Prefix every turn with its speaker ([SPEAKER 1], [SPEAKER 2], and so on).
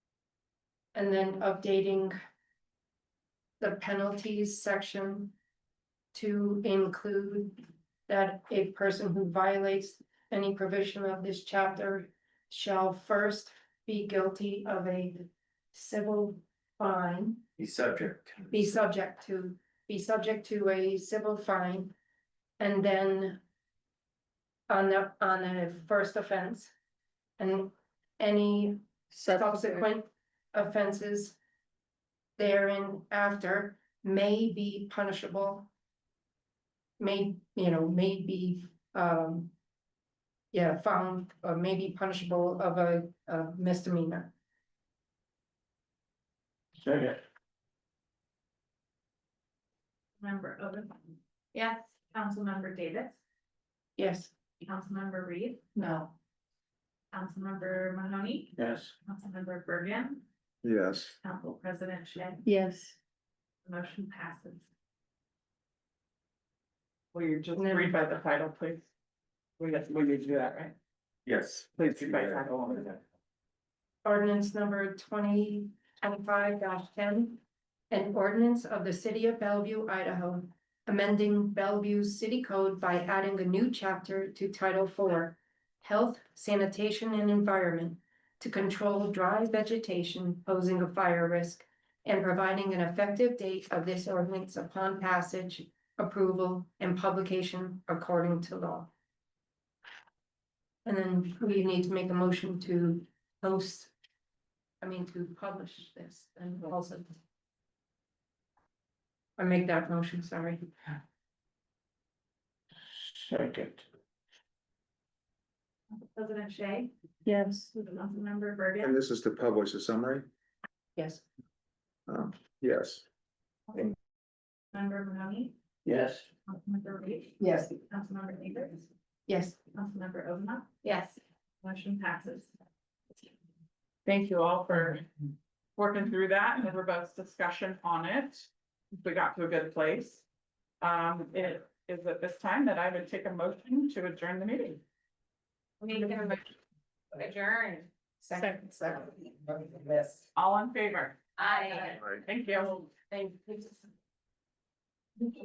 [SPEAKER 1] And then updating. The penalties section. To include that a person who violates any provision of this chapter. Shall first be guilty of a civil fine,
[SPEAKER 2] He's subject.
[SPEAKER 1] be subject to, be subject to a civil fine. And then. On the, on a first offense. And any subsequent offenses therein after may be punishable. May, you know, may be, um, yeah, found, or may be punishable of a, a misdemeanor.
[SPEAKER 2] Second.
[SPEAKER 3] Member Odom. Yes. Councilmember Davis,
[SPEAKER 1] Yes.
[SPEAKER 3] Councilmember Reed,
[SPEAKER 1] No.
[SPEAKER 3] Councilmember Mahoney,
[SPEAKER 2] Yes.
[SPEAKER 3] Councilmember Bergen,
[SPEAKER 2] Yes.
[SPEAKER 3] Council President Shay,
[SPEAKER 1] Yes.
[SPEAKER 3] motion passes.
[SPEAKER 4] Will you just
[SPEAKER 1] No.
[SPEAKER 4] read by the title, please? We got, we need to do that, right?
[SPEAKER 2] Yes.
[SPEAKER 4] Please read by title only.
[SPEAKER 1] Ordinance number twenty twenty-five ten. An ordinance of the city of Bellevue, Idaho, amending Bellevue's city code by adding a new chapter to Title IV. Health, sanitation and environment to control dry vegetation posing a fire risk. And providing an effective date of this ordinance upon passage, approval and publication according to law. And then we need to make a motion to post. I mean, to publish this and also. I make that motion, sorry.
[SPEAKER 2] Second.
[SPEAKER 3] Council President Shay,
[SPEAKER 1] Yes.
[SPEAKER 3] Councilmember
[SPEAKER 5] And
[SPEAKER 3] Bergen,
[SPEAKER 5] this is to publish a summary?
[SPEAKER 1] Yes,
[SPEAKER 5] Um, yes,
[SPEAKER 3] Member Mahoney,
[SPEAKER 2] Yes.
[SPEAKER 3] Councilmember Reed.
[SPEAKER 1] Yes.
[SPEAKER 3] Councilmember Davis,
[SPEAKER 1] yes.
[SPEAKER 3] Councilmember Odom. Yes. Motion passes.
[SPEAKER 4] Thank you all for working through that and the robust discussion on it. We got to a good place. Um, it is at this time that I would take a motion to adjourn the meeting.
[SPEAKER 3] Adjourn.
[SPEAKER 4] Second, second. All in favor?
[SPEAKER 3] Aye.
[SPEAKER 5] right.
[SPEAKER 4] Thank you.
[SPEAKER 3] Thank you.